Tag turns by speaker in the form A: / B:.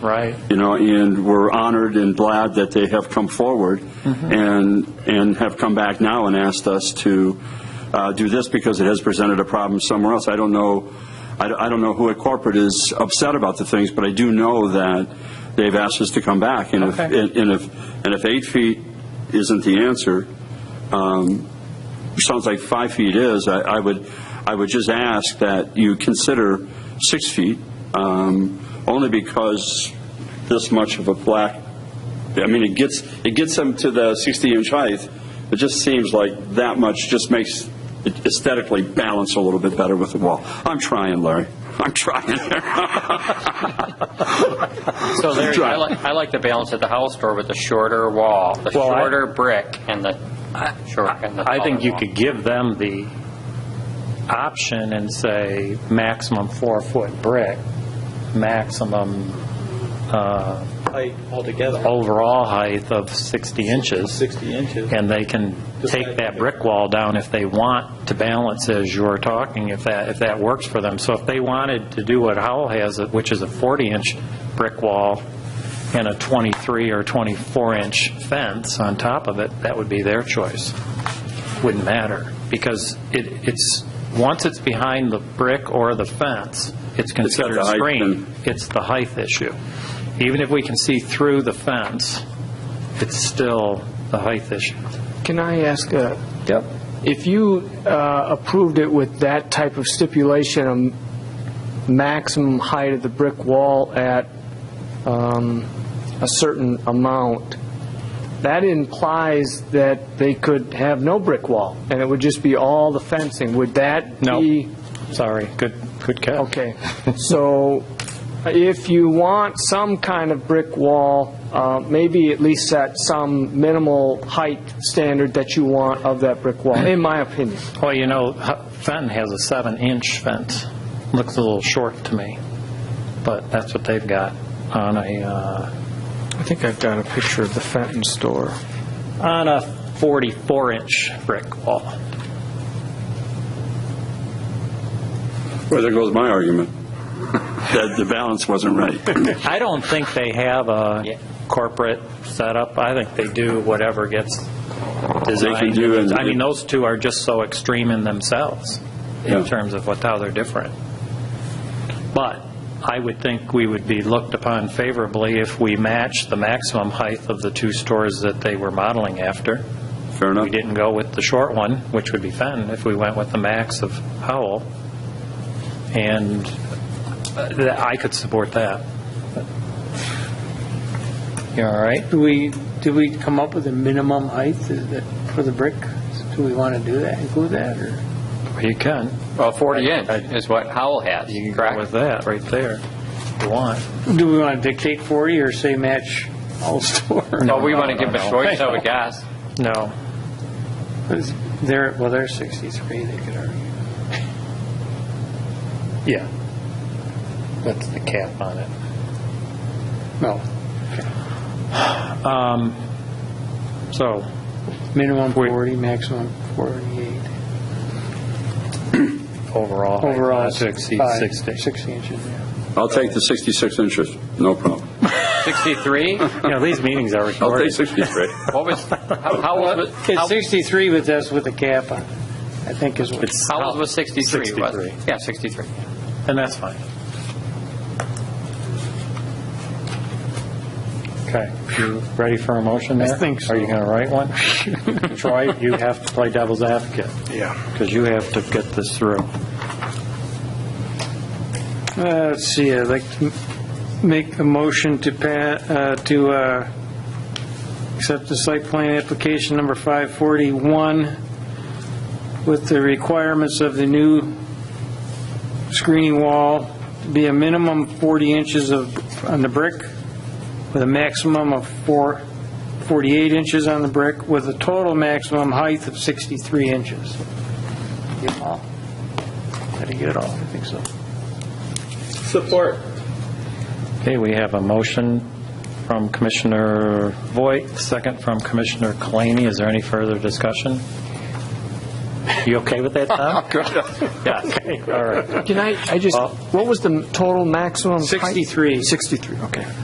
A: Right.
B: You know, and we're honored and glad that they have come forward
A: Mm-hmm.
B: and, and have come back now and asked us to uh, do this because it has presented a problem somewhere else. I don't know, I don't- I don't know who at corporate is upset about the things, but I do know that they've asked us to come back. And if,
A: Okay.
B: and and if, and if eight feet isn't the answer, um, sounds like five feet is, I, I would, I would just ask that you consider six feet, um, only because this much of a black, I mean, it gets, it gets them to the 60-inch height. It just seems like that much just makes it aesthetically balance a little bit better with the wall. I'm trying, Larry. I'm trying.
C: So Larry, I like, I like the balance at the house door with the shorter wall, the
A: Well, I-
C: shorter brick and the short and the
A: I think
C: taller
A: you
C: wall.
A: could give them the option and say maximum four-foot brick, maximum uh,
D: height altogether,
A: overall height of 60 inches,
D: 60 inches.
A: and they can take that brick wall down if they want to balance as you were talking, if that, if that works for them. So if they wanted to do what Howell has, which is a 40-inch brick wall and a 23 or 24-inch fence on top of it, that would be their choice. Wouldn't matter, because it, it's, once it's behind the brick or the fence, it's
B: got
A: considered
B: the height
A: screened.
B: then.
A: It's the height issue. Even if we can see through the fence, it's still the height issue.
E: Can I ask, uh, if you uh, approved it with that type of stipulation, um, maximum height of the brick wall at um, a certain amount, that implies that they could have no brick wall, and it would just be all the fencing. Would that
A: No.
E: be...
A: Sorry, good, good catch.
E: Okay, so if you want some kind of brick wall, uh, maybe at least set some minimal height standard that you want of that brick wall, in my opinion.
A: Well, you know, H- Fenton has a seven-inch fence. Looks a little short to me, but that's what they've got on a, uh,
E: I think I've got a picture of the Fenton store.
A: on a 44-inch brick wall.
B: Well, there goes my argument, that the balance wasn't right.
A: I don't think they have a
C: Yeah.
A: corporate setup. I think they do whatever gets
B: They
A: designed.
B: can do it.
A: I mean, those two are just so extreme in themselves in
B: Yeah.
A: terms of what, how they're different. But I would think we would be looked upon favorably if we matched the maximum height of the two stores that they were modeling after.
B: Fair enough.
A: We didn't go with the short one, which would be Fenton, if we went with the max of Howell. And uh, th- I could support that.
F: You all right? Do we, do we come up with a minimum height that- for the brick? Do we want to do that, include that, or?
A: You can.
C: Well, 40 inch is what Howell has,
A: You can go with
C: correct?
A: that right there, if you want.
F: Do we want to dictate 40 or say match all store?
C: So we want to give them a
A: no.
C: choice, I would guess.
A: No.
F: They're, well, they're 63, they could argue.
A: Yeah. That's the cap on it.
F: No,
A: So,
F: minimum 40, maximum 48.
A: overall. height
F: Overall,
A: not To exceed
F: five,
A: 60.
F: 60 inches, yeah.
B: I'll take the 66 inches, no problem.
C: 63?
A: You know, these meetings are
B: I'll take
A: recorded.
B: 63.
C: What was, how- Howell's was,
F: It's
C: how-
F: 63, but that's with a cap on, it, I think is what.
A: It's-
C: Howell's was 63, was
A: 63.
C: Yeah, 63.
A: And that's fine. Okay, you ready for a motion there?
F: think so.
A: Are you going to write one? Troy, you have to play devil's advocate. Yeah. Because you have to get this through.
F: Uh, Let's see, I'd like to m- make a motion to pa, uh, to, uh, accept the site plan application number 541 with the requirements of the new screening wall to be a minimum 40 inches of, on the brick, with a maximum of four, 48 inches on the brick, with a total maximum height of 63 inches. Get it all? Gotta get it all, I think so.
D: Support.
A: Okay, we have a motion from Commissioner Voigt, second from Commissioner Kalani. Is there any further discussion? You okay with that, Tom? Yeah, okay, all right.
F: Uh,
E: Can I, I just,
A: Well-
E: what was the total maximum height?
F: 63.
E: 63, okay.